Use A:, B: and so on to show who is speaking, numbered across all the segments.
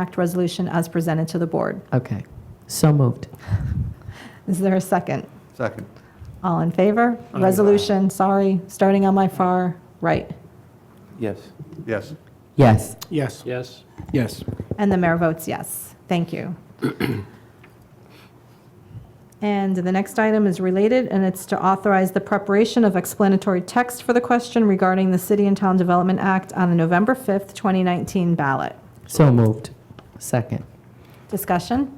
A: Act resolution as presented to the board.
B: Okay, so moved.
A: Is there a second?
C: Second.
A: All in favor? Resolution, sorry, starting on my far right.
D: Yes.
C: Yes.
B: Yes,
E: Yes.
D: Yes.
E: Yes.
A: And the mayor votes yes. Thank you. And the next item is related, and it's to authorize the preparation of explanatory text for the question regarding the City and Town Development Act on the November 5th, 2019 ballot.
B: so moved. Second.
A: Discussion?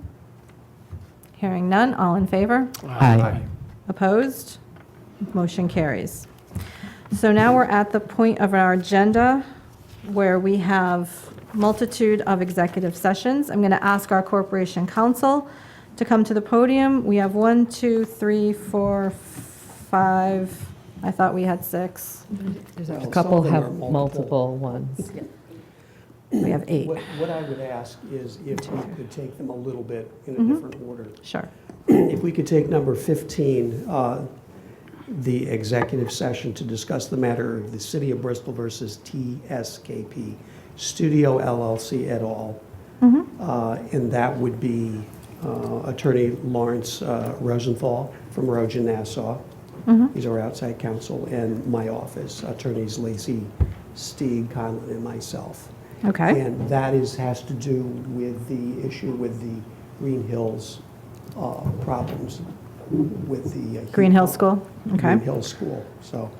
A: Hearing none, all in favor?
B: Aye.
A: Opposed? Motion carries. So now we're at the point of our agenda where we have multitude of executive sessions. I'm going to ask our corporation counsel to come to the podium. We have one, two, three, four, five, I thought we had six.
B: A couple have multiple ones.
A: We have eight.
E: What what I would ask is if we could take them a little bit in a different order.
A: Sure.
E: If we could take number 15, uh, the executive session to discuss the matter of the City of Bristol versus TSKP Studio LLC et al. Uh, And that would be uh, Attorney Lawrence uh, Rosenthal from Rogan Nassau. He's our outside counsel, and my office, attorneys Lacey, Steve Conlon, and myself.
A: Okay.
E: And that is, has to do with the issue with the Green Hills uh, problems with the. uh, heat
A: Green Hill
E: pump.
A: School? Okay.
E: Green Hill School, so.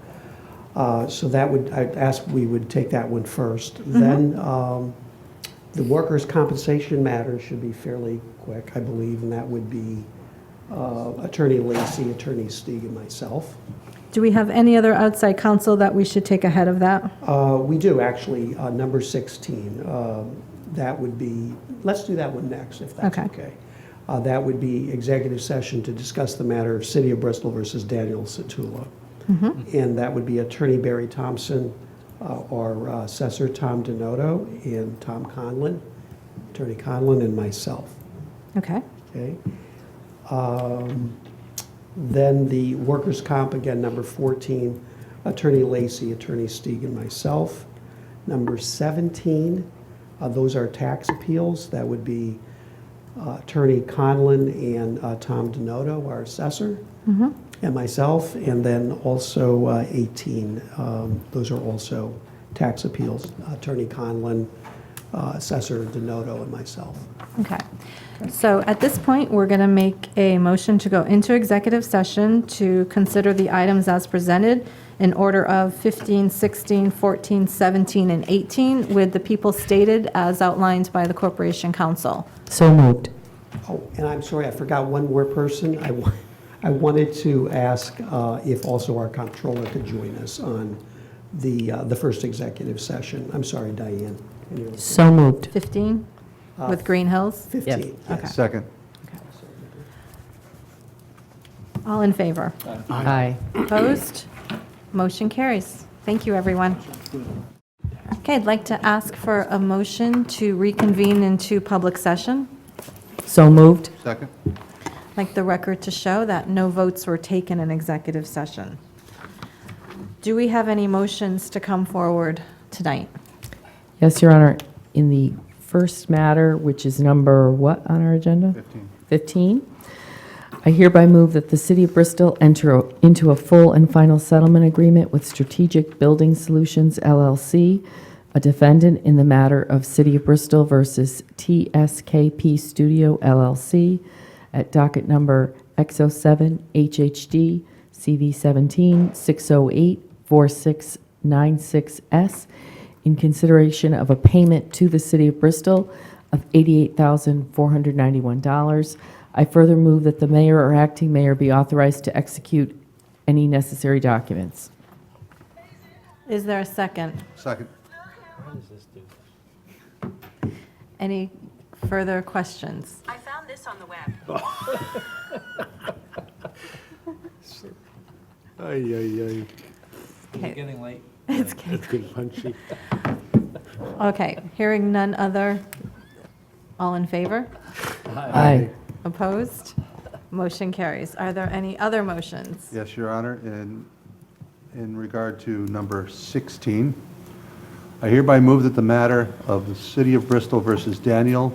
E: uh, So that would, I'd ask, we would take that one first.
A: Mm-hmm.
E: Then um, the workers' compensation matter should be fairly quick, I believe, and that would be uh, Attorney Lacy, Attorney Stieg, and myself.
A: Do we have any other outside counsel that we should take ahead of that?
E: Uh, We do, actually, uh, number 16. um, That would be, let's do that one next, if that's
A: Okay.
E: okay. Uh, That would be executive session to discuss the matter of City of Bristol versus Daniel Satula. And that would be Attorney Barry Thompson, uh, our uh, Assessor Tom Denoto, and Tom Conlon, Attorney Conlon, and myself.
A: Okay.
E: Okay. Um, Then the workers' comp, again, number 14, Attorney Lacy, Attorney Steig, and myself. Number 17, uh, those are tax appeals. That would be uh, Attorney Conlon and uh, Tom Denoto, our assessor,
A: Mm-hmm.
E: and myself. And then also uh, 18, um, those are also tax appeals, Attorney Conlon, uh, Assessor Denoto, and myself.
A: Okay. So at this point, we're going to make a motion to go into executive session to consider the items as presented in order of 15, 16, 14, 17, and 18, with the people stated as outlined by the Corporation Council.
B: So moved.
E: Oh, and I'm sorry, I forgot one more person. I, wa- I wanted to ask uh, if also our comptroller could join us on the, uh, the first executive session. I'm sorry, Diane. When you were
B: So moved.
A: 15, with Green Hills?
E: 15. yes.
C: Second.
A: All in favor?
B: Aye.
A: Opposed? Motion carries. Thank you, everyone. Okay, I'd like to ask for a motion to reconvene into public session.
B: So moved.
C: Second.
A: like the record to show that no votes were taken in executive session. Do we have any motions to come forward tonight?
B: Yes, Your Honor, in the first matter, which is number what on our agenda?
C: 15.
B: 15. I hereby move that the City of Bristol enter o- into a full and final settlement agreement with Strategic Building Solutions LLC, a defendant in the matter of City of Bristol versus TSKP Studio LLC at docket number X07 HHD CV 17 608 4696S in consideration of a payment to the City of Bristol of $88,491. I further move that the mayor or acting mayor be authorized to execute any necessary documents.
A: Is there a second?
C: Second.
A: Any further questions?
F: I found this on the web.
G: Ay, ay,
A: Okay,
G: ay. It's getting punchy.
A: Okay. hearing none other, all in favor?
B: Aye.
A: Opposed? Motion carries. Are there any other motions?
C: Yes, Your Honor, in, in regard to number 16, I hereby move that the matter of the City of Bristol versus Daniel